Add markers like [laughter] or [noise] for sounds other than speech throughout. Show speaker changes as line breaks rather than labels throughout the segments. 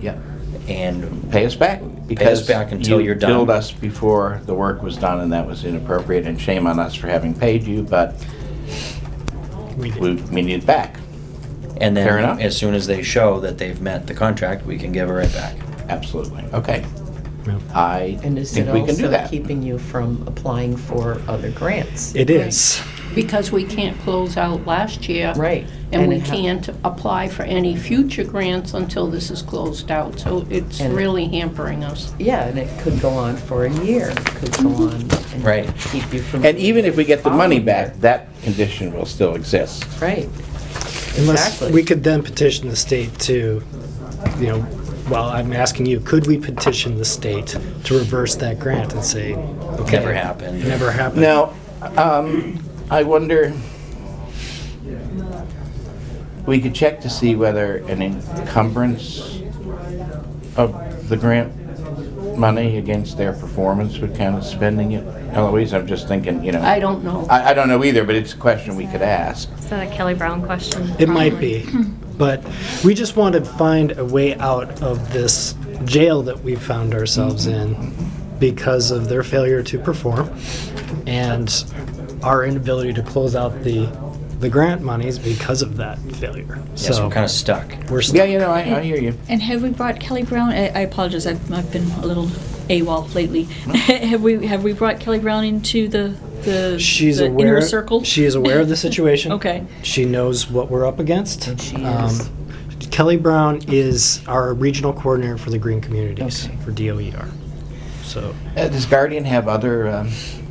Yeah.
and
Pay us back.
Pay us back until
you
you're done.
billed us before the work was done, and that was inappropriate, and shame on us for having paid you, but
We did.
we, we need it back.
and
Fair
then
enough.
as soon as they show that they've met the contract, we can give it right back.
Absolutely. Okay.
Yeah.
I
And is it
think we can do
also
that.
keeping you from applying for other grants?
It is.
Because we can't close out last year.
Right.
And we
it ha-
can't apply for any future grants until this is closed out. So it's
And-
really hampering us.
Yeah, and it could go on for a year, It could go on and
Right.
keep you from.
And even if we get the money back, that condition will still exist.
Right,
Unless
Exactly.
we could then petition the state to, you know, well, I'm asking you, could we petition the state to reverse that grant and say, okay,
Never happened.
Never happened.
Now, um, I wonder, we could check to see whether an encumbrance of the grant money against their performance would count as spending it. Eloise, I'm just thinking, you know.
I don't know.
I, I don't know either, but it's a question we could ask.
Is that a Kelly Brown question?
It might
Probably.
be, but we just want to find a way out of this jail that we've found ourselves
Mm-hmm.
in because of their failure to perform and our inability to close out the the grant monies because of that failure.
Yeah, so
so
we're kind of stuck.
we're st-
Yeah, you know, I, I hear you.
And have we brought Kelly Brown? I, I apologize. I've, I've been a little AWOL lately. [laughs] have we have we brought Kelly Brown into the the,
she's
the
aware
inner circle?
She is aware of the situation.
[laughs] Okay.
She knows what we're up against. Um,
And she is-
Kelly Brown is our regional coordinator for the green communities
Okay.
for DOER. So
Uh, Does Guardian have other um,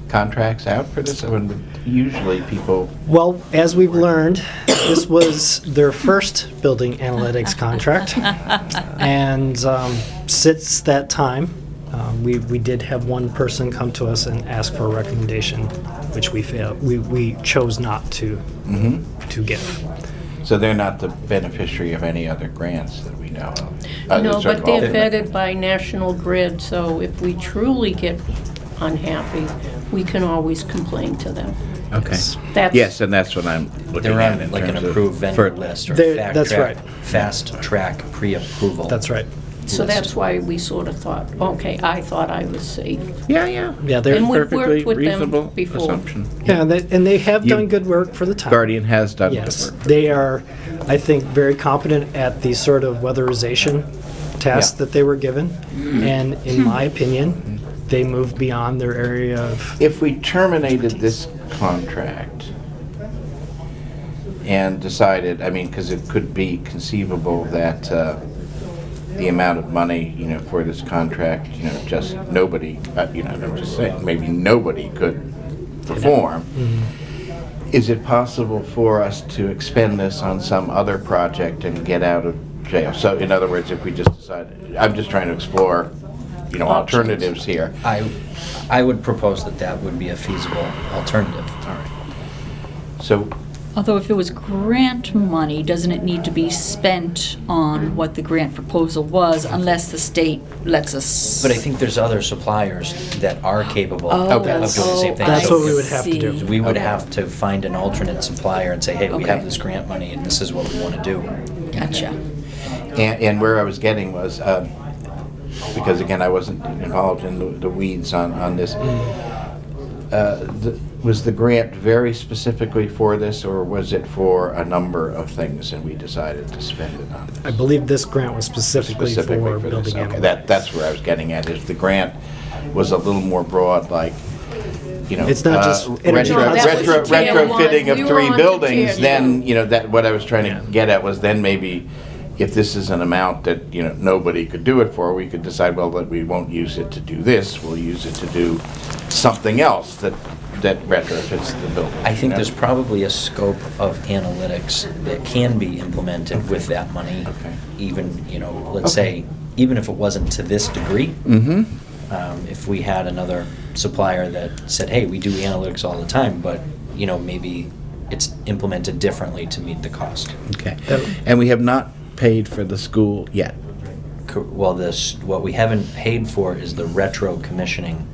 contracts out for this? I mean, Usually people,
Well, as we've learned, this was their first building analytics
[laughs]
contract. And um, since that time, um, we, we did have one person come to us and ask for a recommendation, which we failed. We, we chose not to
mm-hmm.
to give.
so they're not the beneficiary of any other grants that we know of. Uh,
No,
sort of
but they're
alternate.
vetted by National Grid, so if we truly get unhappy, we can always complain to them.
Okay.
That's-
Yes, and that's what I'm looking
They're
at in
on like an
terms of-
approved vendor
for-
list or
They're-
fact
that's
track,
right.
fast track pre-approval.
That's right.
So that's why we sort of thought, okay, I thought I was safe.
Yeah, yeah.
Yeah, they're-
It's
And
we've worked
perfectly
with them
reasonable
before.
assumption.
Yeah, and they, and they have
You-
done good work for the town.
Guardian has done good
Yes,
work.
they are, I think, very competent at the sort of weatherization tasks
Yeah. Mm-hmm.
that they were given. And in my opinion, they moved beyond their area of,
If we terminated this contract and decided, I mean, because it could be conceivable that uh, the amount of money, you know, for this contract, you know, just nobody, uh, you know, I'm just saying, maybe nobody could perform. Is it possible for us to expend this on some other project and get out of jail? So in other words, if we just decide, I'm just trying to explore, you know,
Options.
alternatives here.
I, I would propose that that would be a feasible alternative.
So
Although if it was grant money, doesn't it need to be spent on what the grant proposal was, unless the state lets us?
But I think there's other suppliers that are capable
Oh,
of
Okay.
doing the same thing.
That's
So
what we would have to do.
I see.
We would
Okay.
have to find an alternate supplier and say, hey, we have
Okay.
this grant money and this is what we want to do.
Gotcha.
And, and where I was getting was, um, because again, I wasn't involved in the, the weeds on, on this. Uh, the, was the grant very specifically for this, or was it for a number of things, and we decided to spend it on
I
this?
believe this grant was specifically for
Specifically for
building
this, okay,
animals.
that, that's where I was getting at, is the grant was a little more broad, like, you know.
It's not
uh,
just
retro-
energy No, that was
retro-
the tail
Retrofitting
line. We
of
were
three
on to
buildings,
tier
then,
two.
you know, that, what I was trying
Yeah.
to get at was then maybe if this is an amount that, you know, nobody could do it for, we could decide, well, that we won't use it to do this, we'll use it to do something else that, that retrofits the building.
I think
you know?
there's probably a scope of analytics that can be implemented with that money.
Okay.
Even, you know, let's
Okay.
say, even if it wasn't to this degree,
Mhm.
um, if we had another supplier that said, hey, we do analytics all the time, but, you know, maybe it's implemented differently to meet the cost.
Okay. And we have not paid for the school yet.
Co- Well, this, what we haven't paid for is the retro commissioning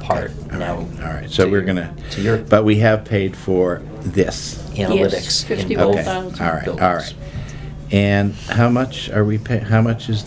part
All
now.
right, all right, so
to
we're
your-
gonna,
To your
but we have paid for this.
analytics. in both
Okay, all
$51,000.
right, all
buildings.
right. And how much are we pay, how much is